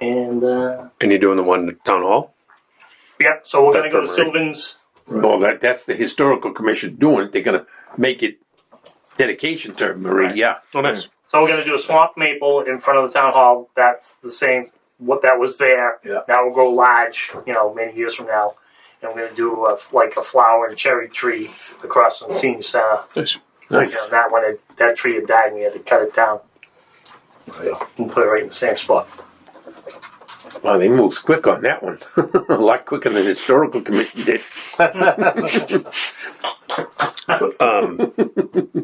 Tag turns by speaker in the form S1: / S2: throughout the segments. S1: And uh,
S2: And you're doing the one at town hall?
S1: yeah, so we're going to go to
S2: That's all right.
S1: Sylvan's.
S3: Well, that, that's the historical commission doing it. They're gonna make it dedication to Marie,
S1: Right.
S3: yeah.
S2: Oh, nice.
S1: So we're going to do a swamp maple in front of the town hall. That's the same what that was there.
S3: Yeah.
S1: Now we'll go large. You know, many years from now, and we're going to do a, f- like a flower and cherry tree across from the senior center.
S2: Nice.
S1: You know, that one, had- that tree had died, and we had to cut it down. So, and put it right in the same spot.
S3: Wow, they moved quick on that one. A lot quicker than the historical commission did.
S2: Um,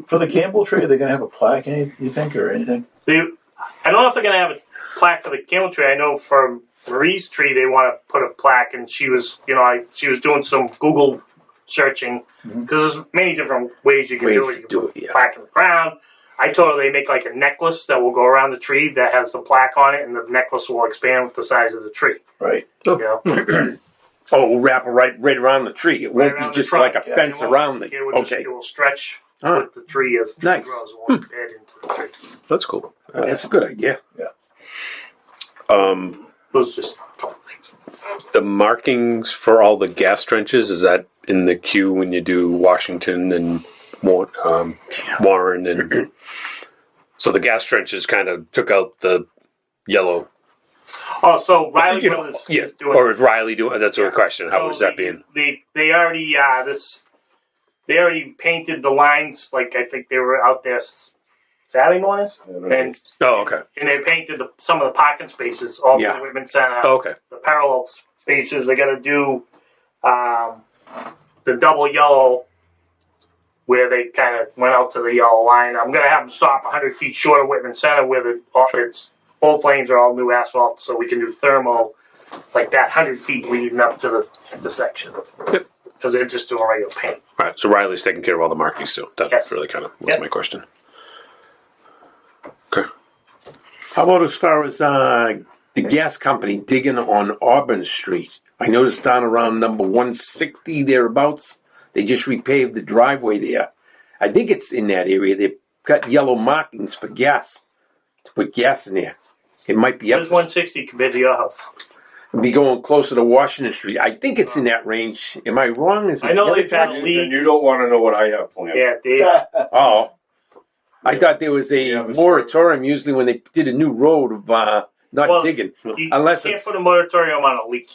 S4: For the Campbell tree, are they going to have a plaque, any, you think, or anything?
S1: They, I don't know if they're going to have a plaque for the camel tree. I know for Marie's tree, they want to put a plaque, and she was, you know, I, she was doing some Google searching because there's many different ways you can do
S3: Mm-hmm. Ways
S1: it.
S3: to
S1: You can
S3: do
S1: put
S3: it, yeah.
S1: plaque in the ground. I told her they make like a necklace that will go around the tree that has the plaque on it, and the necklace will expand with the size of the tree.
S4: Right.
S1: You know?
S3: Oh, we'll wrap it right, right around the tree. It won't
S1: around the
S3: be just
S1: trunk,
S3: like a
S4: yeah.
S3: fence
S1: It will-
S3: around the,
S1: it will just-
S3: okay.
S1: it will stretch
S3: Huh.
S1: with the tree as the tree
S3: Nice. Hmm.
S1: grows. It won't bed into the tree.
S2: that's cool.
S3: That's a good idea.
S2: Um,
S1: Those just a couple things.
S2: the markings for all the gas trenches is that in the queue when you do Washington and Wa- um, Warren and so the gas trenches kind of took out the yellow.
S1: Oh, so Riley
S2: You know,
S1: Brothers
S2: yeah.
S1: is doing
S2: Or is Riley doing? That's a question. How
S1: So
S2: was that
S1: they-
S2: being?
S1: They they already uh this they already painted the lines like I think they were out there s- Saturday morning and
S2: Oh, okay.
S1: and they painted the, some of the parking spaces all
S3: Yeah.
S1: the women's uh, center
S2: Oh, okay.
S1: the parallel spaces they're gonna do um the double yellow where they kind of went out to the yellow line. I'm gonna have them stop 100 feet short of Whitman Center where the all, it's both lanes are all new asphalt, so we can do thermal like that 100 feet leading up to the, the section.
S2: Yep.
S1: Because they're just doing regular paint.
S2: All right. So Riley's taking care of all the markings still. That's
S1: Yes.
S2: really kind of was
S1: Yep.
S2: my question.
S3: How about as far as uh, the gas company digging on Auburn Street? I noticed down around number 160 thereabouts, they just repaved the driveway there. I think it's in that area. They've got yellow markings for gas to put gas in there. It might be up.
S1: There's 160 compared to your house.
S3: Be going closer to Washington Street. I think it's in that range. Am I wrong? Is it
S1: I know
S3: yellow?
S1: they've had a
S5: And
S1: leak.
S5: you don't want to know what I have planned.
S1: Yeah, Dave.
S3: Oh. I thought there was a
S5: Yeah, but-
S3: moratorium usually when they did a new road of uh, not
S1: Well,
S3: digging.
S1: You
S3: Unless
S1: can't
S3: it's.
S1: put a moratorium on a leak.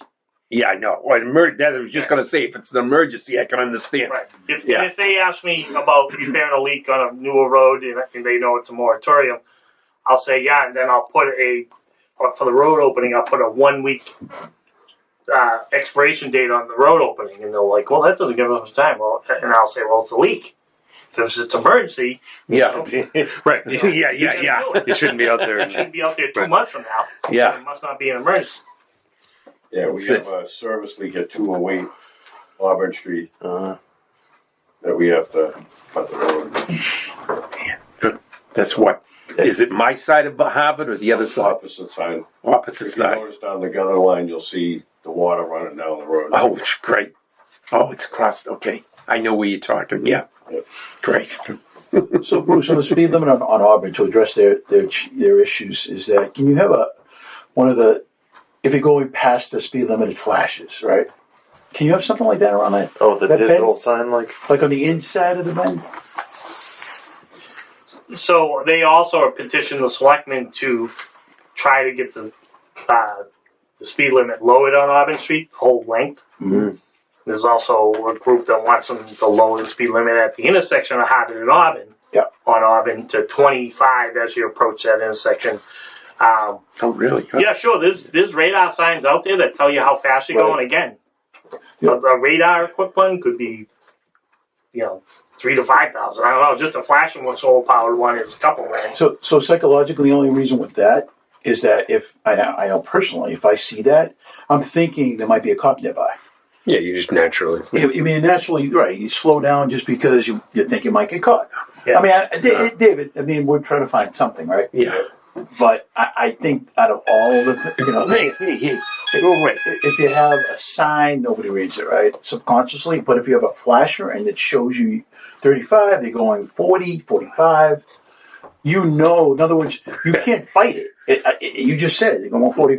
S3: Yeah, I know. Well, emer- that, I was just going to say, if it's an emergency, I can understand.
S1: Right. If,
S3: Yeah.
S1: if they ask me about repairing a leak on a newer road and, and they know it's a moratorium, I'll say yeah, and then I'll put a or for the road opening. I'll put a one week uh, expiration date on the road opening, and they'll like, well, that doesn't give us time. Well, and I'll say, well, it's a leak. If it's, it's emergency,
S3: Yeah,
S2: Right.
S3: yeah, yeah, yeah.
S2: You shouldn't be out there.
S1: it shouldn't be out there two
S2: Right.
S1: months from now.
S3: Yeah.
S1: it must not be an emergency.
S5: Yeah, we
S3: That's
S5: have
S3: it.
S5: a service leak at two oh eight Auburn Street.
S6: Uh-huh.
S5: That we have to cut the road.
S3: That's what. Is it my side of Harvard or the other side?
S5: Opposite side.
S3: Opposite
S5: If you
S3: side.
S5: notice down the gutter line, you'll see the water running down the road.
S3: Oh, it's great. Oh, it's crossed. Okay. I know where you're talking. Yeah.
S5: Yep.
S3: Great.
S4: So, Bruce, on the speed limit on, on Auburn to address their, their ch- their issues is that can you have a one of the if you're going past the speed limit, it flashes, right? Can you have something like that around that,
S6: Oh, the
S4: That
S6: digital sign, like
S4: like on the inside of the bend?
S1: So they also petitioned the selectmen to try to get the uh, the speed limit lowered on Auburn Street, whole length.
S4: Mhm.
S1: There's also a group that wants them to lower the speed limit at the intersection of Harvard and Auburn.
S4: Yep.
S1: On Auburn to 25 as you approach that intersection. Um,
S3: Oh, really?
S1: yeah, sure. There's there's radar signs out there that tell you how fast you're
S4: Right.
S1: going. Again,
S4: Yeah.
S1: a, a radar equipped one could be, you know, three to five thousand. I don't know. Just a flashing one, solar powered one is a couple grand.
S4: So, so psychologically, the only reason with that is that if I know, I know personally, if I see that, I'm thinking there might be a cop nearby.
S2: Yeah, you just naturally.
S4: I I mean, naturally, right? You slow down just because you, you think you might get caught.
S1: Yeah.
S4: I mean, I, Da- David. I mean, we're trying to find something, right?
S3: Yeah.
S4: But I, I think out of all the, th- you know,
S3: Hey, hey, hey. Go away.
S4: if you have a sign, nobody reads it, right? Subconsciously. But if you have a flasher and it shows you 35, you're going 40, 45, you know, in other words, you can't fight it. it, it you just said it, you're going 45.